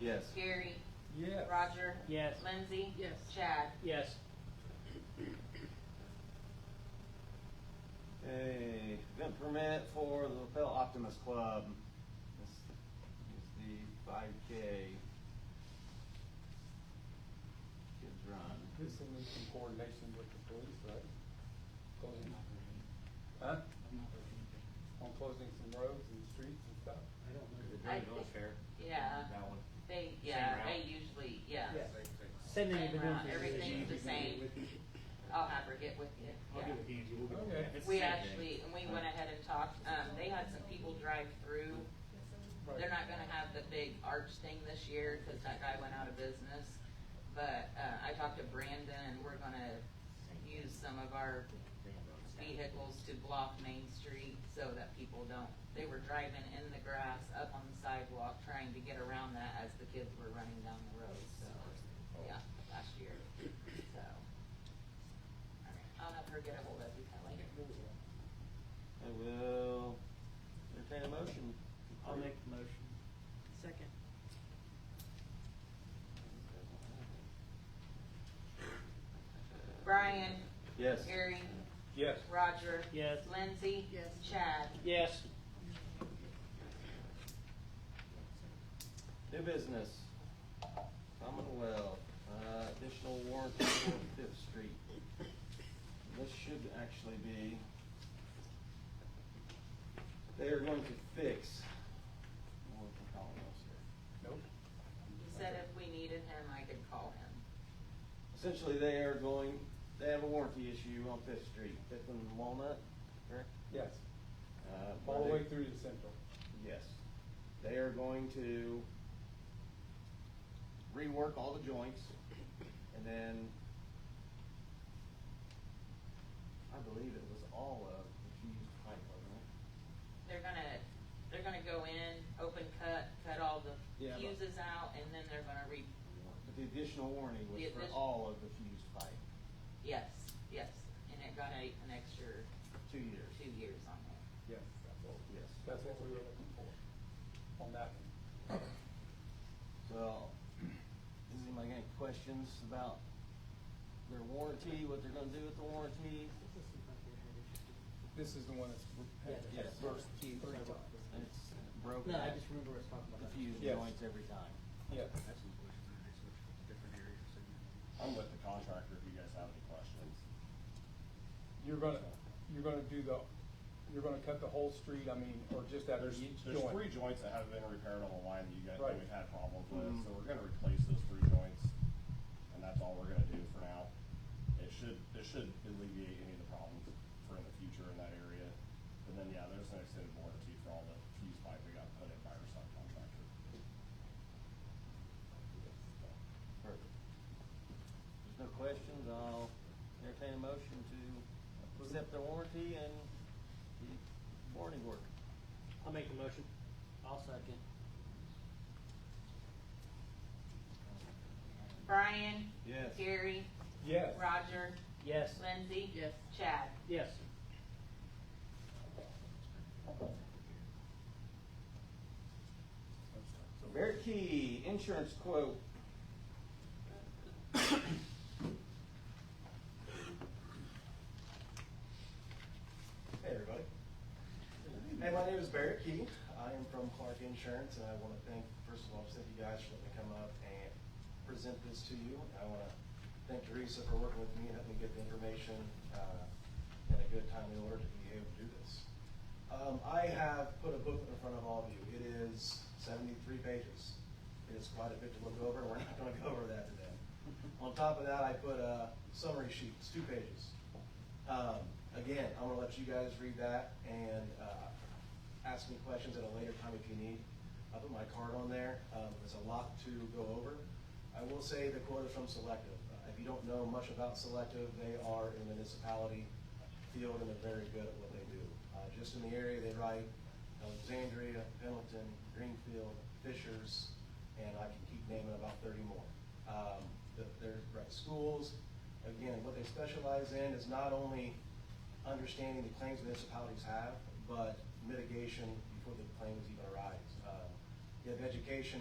Yes. Gary. Yes. Roger. Yes. Lindsay. Yes. Chad. Yes. A event permit for the lapel Optimus Club. This is the five K. Kids run. This will need some coordination with the police, right? Closing, huh? On closing some roads and streets and stuff. I think- Yeah, they, yeah, they usually, yeah. Yes. Same thing you've Same been doing route, for years. everything's the same. I'll have her get with you, I'll yeah. do it, Angie, we'll do Okay. it. It's We the same actually, and we went ahead and talked, um, they had some people drive through. They're not gonna have the big arch thing this year, cause that guy went out of business. But, uh, I talked to Brandon and we're gonna use some of our vehicles to block Main Street so that people don't, they were driving in the grass up on the sidewalk trying to get around that as the kids were running down the road, so, yeah, last year, so. All right, I'll have her get ahold of you, Kelly. I will entertain a motion. I'll make the motion. Second. Brian, Yes. Gary, Yes. Roger. Yes. Lindsay. Yes. Chad. Yes. New business. Commonwealth, uh, additional warranty for Fifth Street. This should actually be, they are going to fix, what the hell else here? Nope. He said if we needed him, I could call him. Essentially, they are going, they have a warranty issue on Fifth Street, Fifth and Walnut, correct? Yes, Uh, all the where way they- through to Central. Yes. They are going to rework all the joints and then I believe it was all of the fused pipe, wasn't it? They're gonna, they're gonna go in, open cut, cut all the Yeah, but- fuses out, and then they're gonna re, But the additional warranty was The for addition- all of the fused pipe, yes, yes. And it got a, an extra two years. two years on there. Yes, that's what, Yes. that's what we were looking for on that one. So, does anybody got any questions about their warranty, what they're gonna do with the warranty? This is the one that's. Yes. First. It's broken No, I at just remember us talking about the that. fused Yes. joints every time. Yes. I'm with the contractor if you guys have any questions. You're gonna, you're gonna do the, you're gonna cut the whole street, I mean, or just that There's, each there's joint? three joints that have been repaired on the line that you guys, Right. Mm-hmm. that we've had problems with, Mhm. so we're gonna replace those three joints. And that's all we're gonna do for now. It should, it should alleviate any of the problems for in the future in that area. And then, yeah, there's an extended warranty for all the fuse pipe we got put in by our subcontractor. Perfect. There's no questions, I'll entertain a motion to accept the warranty and the warranty work. I'll make the motion. I'll second. Brian. Yes. Gary. Yes. Roger. Yes. Lindsay. Yes. Chad. Yes. Barrett Key, insurance quote. Hey, everybody. Hey, my name is Barrett Key. I am from Clark Insurance, and I want to thank, first of all, thank you guys for letting me come up and present this to you. I want to thank Teresa for working with me and helping me get the information uh, at a good time in order to be able to do this. Um, I have put a booklet in front of all of you. It is 73 pages. It is quite a bit to look over, and we're not going to go over that today. On top of that, I put uh, summary sheets, two pages. Um, again, I'm gonna let you guys read that and, uh, ask me questions at a later time if you need. I put my card on there, um, there's a lot to go over. I will say the quote is from Selective. Uh, If you don't know much about Selective, they are in the municipality field and they're very good at what they do. Uh, just in the area, they write Alexandria, Pendleton, Greenfield, Fishers, and I can keep naming about thirty more. Um, th- they're, right, schools, again, what they specialize in is not only understanding the claims municipalities have, but mitigation before the claims even arise. Uh, You have education,